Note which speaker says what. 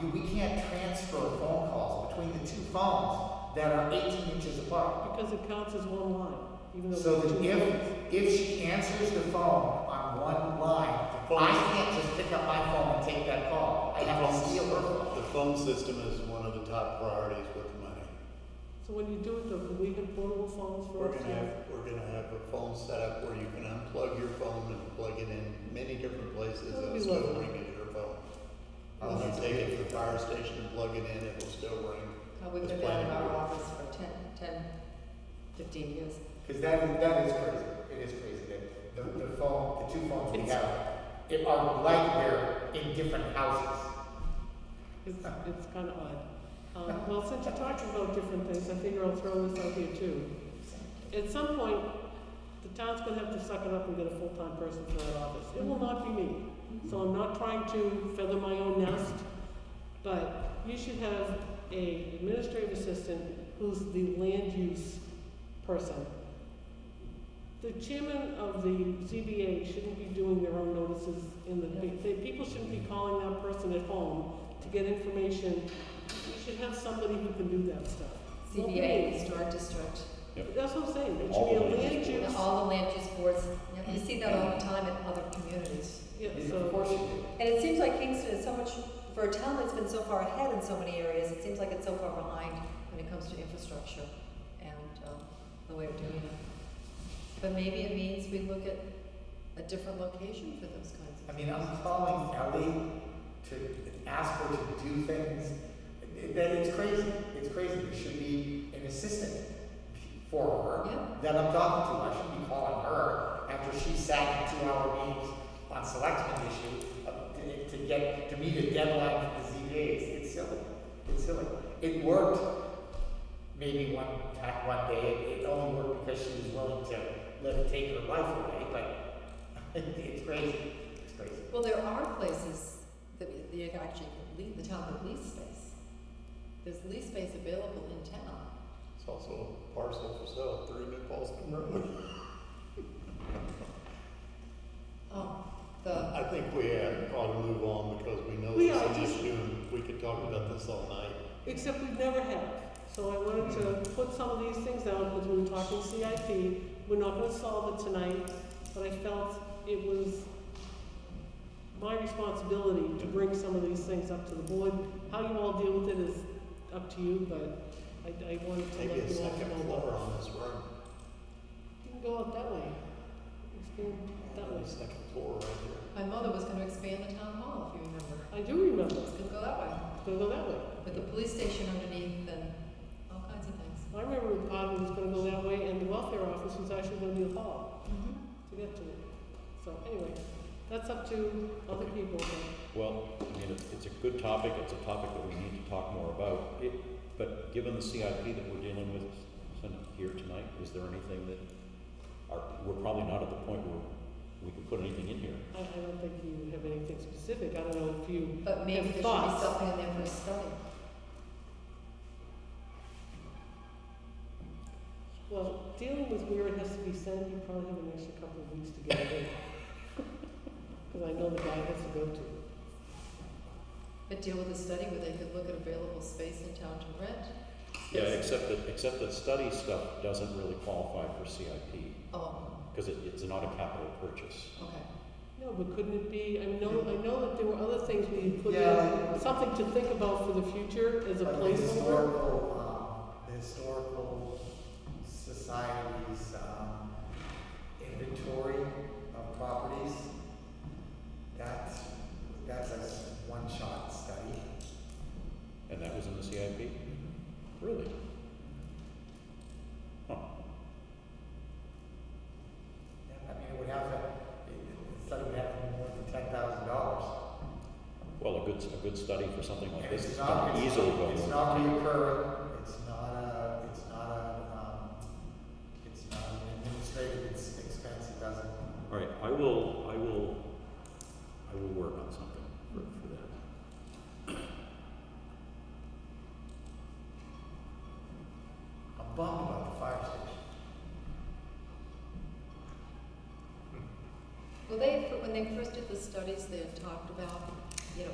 Speaker 1: you, we can't transfer phone calls between the two phones that are eighteen inches apart.
Speaker 2: Because it counts as one line, even though.
Speaker 1: So
Speaker 2: it's
Speaker 1: that
Speaker 2: two lines.
Speaker 1: if, if she answers the phone on one line, I can't just pick up my phone and take that call. I have to steal her phone.
Speaker 3: The phone system is one of the top priorities with the money.
Speaker 2: So when you do it, though, can we have portable phones for
Speaker 3: We're gonna have,
Speaker 2: upstairs?
Speaker 3: we're gonna have a phone set up where you can unplug your phone and plug it in many different places
Speaker 2: That'd
Speaker 3: and
Speaker 2: be
Speaker 3: it'll still
Speaker 2: lovely.
Speaker 3: ring at your phone.
Speaker 1: Oh,
Speaker 3: When you
Speaker 1: that's
Speaker 3: take it to
Speaker 1: good.
Speaker 3: the fire station and plug it in, it will still ring.
Speaker 4: Uh, We've
Speaker 3: That's
Speaker 4: been out of
Speaker 3: planning
Speaker 4: our
Speaker 3: board.
Speaker 4: office for 10, 10, 15 years.
Speaker 1: Because that is, that is crazy. It is crazy that the, the phone, the two phones we have, it are like they're in different houses.
Speaker 2: It's, it's kind of odd. Um, well, since you're talking about different things, I figure I'll throw this out here too. At some point, the town's gonna have to suck it up and get a full-time person for that office. It will not be me. So I'm not trying to feather my own nest, but you should have a administrative assistant who's the land use person. The chairman of the ZBA shouldn't be doing their own notices in the, they, people shouldn't be calling that person at home to get information. You should have somebody who can do that stuff.
Speaker 4: CBA, historic district,
Speaker 2: That's what I'm saying, it
Speaker 5: All
Speaker 2: should be a
Speaker 5: the land
Speaker 2: land
Speaker 5: use
Speaker 4: you know,
Speaker 2: use,
Speaker 4: all the land use boards. you know, You see that all the time in other communities.
Speaker 2: yeah,
Speaker 1: Is- Of
Speaker 2: so,
Speaker 1: course you do.
Speaker 4: And it seems like Kingston is so much, for a town that's been so far ahead in so many areas, it seems like it's so far behind when it comes to infrastructure and um, the way of doing it. But maybe it means we look at a different location for those kinds
Speaker 1: I
Speaker 4: of.
Speaker 1: mean, I'm calling Ellie to ask her to do things. It- That it's crazy. It's crazy. There should be an assistant for her
Speaker 4: Yeah.
Speaker 1: that I'm talking to. I shouldn't be calling her after she sat in two-hour meetings on selectmen issue uh, to, to get to meet a deadline for the ZBAs. It's silly. It's silly. It worked maybe one time, one day. It, it only worked because she was willing to let it take her life away. But it's crazy. It's crazy.
Speaker 4: Well, there are places that, that actually leave the town with lease space. There's lease space available in town.
Speaker 3: It's also a parcel for sale, three New Paulson Road.
Speaker 4: Oh, the,
Speaker 3: I think we uh, ought to move on because we know
Speaker 2: We
Speaker 3: this
Speaker 2: are
Speaker 3: is an
Speaker 2: just-
Speaker 3: issue and we could talk about this all night.
Speaker 2: except we've never had. So I wanted to put some of these things out, because we were talking CIP, we're not gonna solve it tonight, but I felt it was my responsibility to bring some of these things up to the board. How you all deal with it is up to you, but I, I wanted to let
Speaker 3: Maybe a
Speaker 2: you all
Speaker 3: second
Speaker 2: know
Speaker 3: floor
Speaker 2: that.
Speaker 3: on this room.
Speaker 2: You can go out that way. It's been that way.
Speaker 3: Maybe a second floor right here.
Speaker 4: my mother was gonna expand the town hall, if you remember.
Speaker 2: I do remember,
Speaker 4: It's gonna go that way,
Speaker 2: it's gonna go that way.
Speaker 4: with the police station underneath and all kinds of things.
Speaker 2: I remember when Podman was gonna go that way, and the welfare office was actually gonna be a hall.
Speaker 4: Mm-hmm.
Speaker 2: to get to it. So anyway, that's up to other people. but-
Speaker 5: Well, I mean, it's, it's a good topic, it's a topic that we need to talk more about. It, but given the CIP that we're dealing with son- here tonight, is there anything that, are, we're probably not at the point where we can put anything in here.
Speaker 2: I, I don't think you have anything specific. I don't know if you,
Speaker 4: But maybe there should be
Speaker 2: thoughts.
Speaker 4: something in there for a study.
Speaker 2: well, dealing with where it has to be sent, you probably have an extra couple of weeks to get it in. Because I know the guy has to go to.
Speaker 4: But deal with a study where they could look at available space in town to rent.
Speaker 5: Yeah,
Speaker 4: Yes.
Speaker 5: except that, except that study stuff doesn't really qualify for CIP,
Speaker 4: Oh,
Speaker 5: because it, it's not a capital purchase.
Speaker 4: okay.
Speaker 2: No, but couldn't it be, I know, I know that there were other things we had put
Speaker 1: Yeah.
Speaker 2: in, something to think about for the future as a
Speaker 1: Like the
Speaker 2: placeholder.
Speaker 1: Historical, um, the historical society's, um, inventory of properties. That's, that's a one-shot study.
Speaker 5: And that was in the CIP?
Speaker 1: Mm-hmm.
Speaker 5: Really? Huh.
Speaker 1: I mean, it would have to, it- the study would have to be more than ten thousand dollars.
Speaker 5: Well, a good, a good study for something like
Speaker 1: And
Speaker 5: this
Speaker 1: it's
Speaker 5: is
Speaker 1: not,
Speaker 5: not
Speaker 1: it's,
Speaker 5: easily going
Speaker 1: it's
Speaker 5: over.
Speaker 1: not reoccurring, it's not a, it's not a, um, it's not an administrative ex- expense, it doesn't.
Speaker 5: All right, I will, I will, I will work on something for, for that.
Speaker 1: I'm bummed about the fire station.
Speaker 4: Well, they, when they first did the studies, they had talked about, you know,